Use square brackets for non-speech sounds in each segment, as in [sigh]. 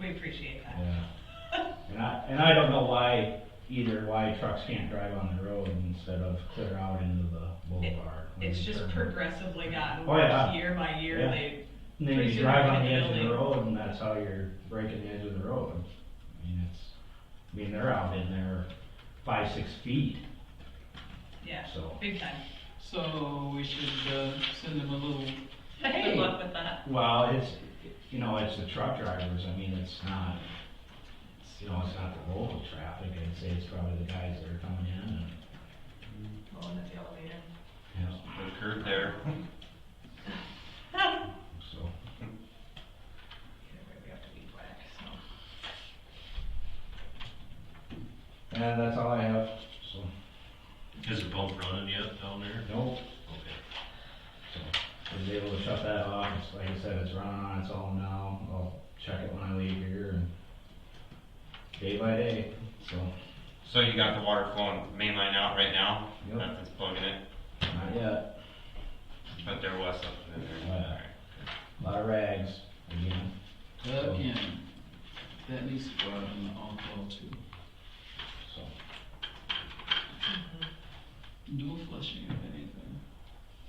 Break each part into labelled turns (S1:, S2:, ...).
S1: we appreciate that.
S2: Yeah. And I, and I don't know why either, why trucks can't drive on the road instead of clear out into the boulevard. when
S1: It's
S2: they
S1: just
S2: turn.
S1: progressively gotten
S2: Oh,
S1: worse
S2: yeah.
S1: year by year,
S2: Yeah.
S1: they,
S2: And then
S1: pretty
S2: you
S1: soon
S2: drive
S1: we're
S2: on the
S1: gonna
S2: edge of the
S1: building.
S2: road and that's how you're breaking the edge of the road. I mean, it's, I mean, they're out in there five, six feet,
S1: yeah,
S2: so.
S1: big time.
S3: So we should, uh, send them a little,
S1: Good luck with that.
S2: Well, it's, you know, it's the truck drivers, I mean, it's not, it's, you know, it's not the local traffic, I'd say it's probably the guys that are coming in and,
S1: Going to the elevator.
S2: you know,
S4: The curb there.
S2: so.
S1: Either way, we have to be whack, so.
S2: And that's all I have, so,
S4: Is the pump running yet down there?
S2: no,
S4: Okay.
S2: so, I was able to shut that off, it's, like I said, it's running on its own now, I'll check it when I leave here and day by day, so,
S4: So you got the water flowing main line out right now?
S2: yep,
S4: Nothing's plugging it,
S2: not yet,
S4: but there was something in there.
S2: Yeah. lot of rags, again,
S4: Oh.
S3: uh, in. That needs to go out in the all-call too.
S2: so.
S3: No flushing of anything.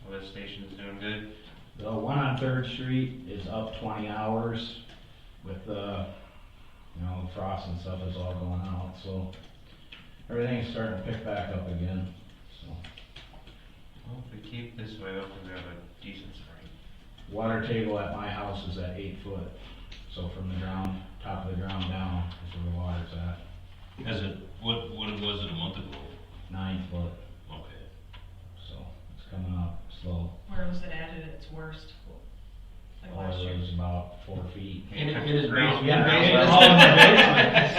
S4: Well, this station's doing good.
S2: The one on Third Street is up twenty hours with the, you know, the frost and stuff is all going out, so everything's starting to pick back up again, so.
S4: Well, if we keep this way open, we have a decent spring.
S2: Water table at my house is at eight foot, so from the ground, top of the ground down is where the water's at,
S4: Is it, what, what was it a month ago?
S2: nine foot,
S4: Okay.
S2: so it's coming up slow.
S1: Where was it at at its worst? Like
S2: Water
S1: last year?
S2: Oh, was about four feet.
S4: It-
S5: it is
S4: Ground-
S5: basement.
S2: Yeah, it's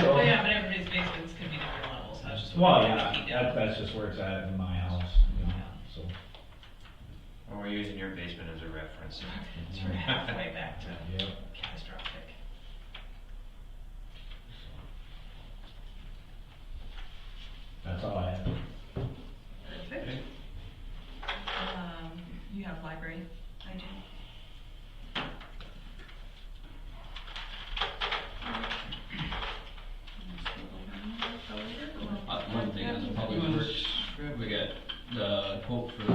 S2: all in [laughs] the basement,
S1: Well, Oh, yeah, but everybody's basements can be different levels, so I was just.
S2: so. Well,
S1: wondering if
S2: yeah,
S1: you did.
S2: that, that's just where it's at in my house, you know, so.
S4: Well, we're using your basement as a reference.
S1: So we're halfway back to
S2: Yep.
S1: catastrophic.
S2: That's all I have.
S1: Perfect. Um, you have library, I do.
S5: Uh, One thing is
S3: You
S5: probably
S3: wanna
S5: works,
S3: grab
S5: we got the quote for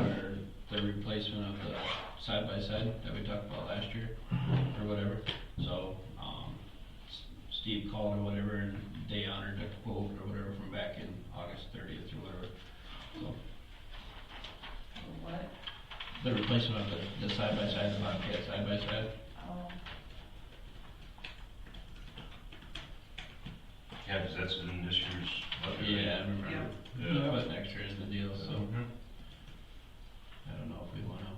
S5: the replacement of the side by side that we talked about last year, or whatever. So, um, S- Steve called or whatever, and they honored the quote or whatever from back in August thirtieth or whatever. So,
S1: What?
S5: the replacement of the, the side by side, the Bobcat side by side.
S1: Oh,
S4: Yeah, because that's in this year's budget.
S5: Yeah, I remember.
S4: Yeah.
S5: That was next year in the deal, so
S4: Mhm.
S5: I don't know if we wanna.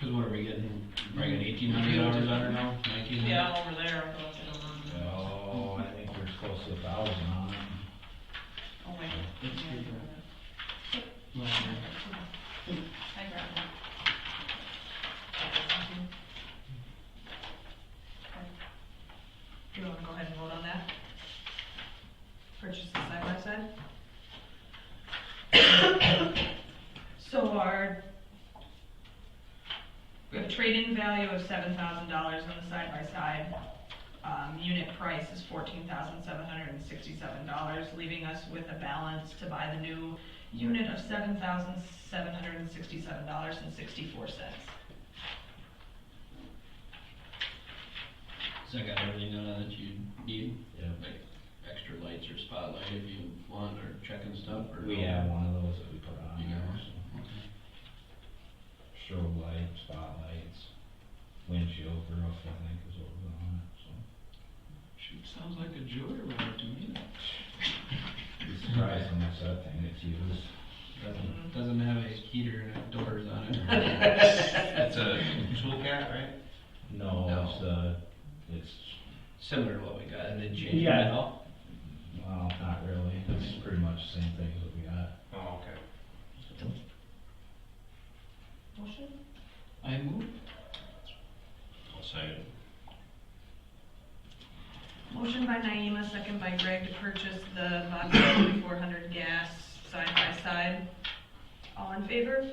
S5: Cause what are we getting, like an eighteen hundred dollars out of now, nineteen hundred?
S1: yeah, over there, I thought it was, um,
S2: Oh, I think we're close to a thousand on it.
S1: oh wait.
S3: Let's get
S1: yeah, I
S3: that.
S1: grabbed it. Mhm. Okay. Do you wanna go ahead and vote on that? Purchase the side by side? So our, we have a trade-in value of seven thousand dollars on the side by side. Um, unit price is fourteen thousand seven hundred and sixty-seven dollars, leaving us with a balance to buy the new unit of seven thousand seven hundred and sixty-seven dollars and sixty-four cents.
S5: So I got everything done that you need,
S2: Yeah.
S5: like extra lights or spotlight if you want, or checking stuff, or?
S2: We have one of those that we put on
S5: You got
S2: there.
S5: one?
S2: so.
S5: Okay.
S2: Strobe light, spotlights, windshield, roof, I think is what was on it, so.
S3: Shoot, sounds like a joyride to me.
S2: Be surprised how much that thing gets used.
S5: Doesn't, doesn't have a heater and doors on it. [laughs]
S4: That's a tool cat, right?
S2: No,
S5: No.
S2: it's, uh, it's,
S5: Similar to what we got, and then change it
S2: Yeah.
S5: at all?
S2: well, not really, it's pretty much the same thing as what we got.
S4: Oh, okay.
S1: Motion?
S3: I move,
S4: I'll say it.
S1: Motion by Naima, second by Greg to purchase [coughs] the Vodka 4400 gas side by side. All in favor?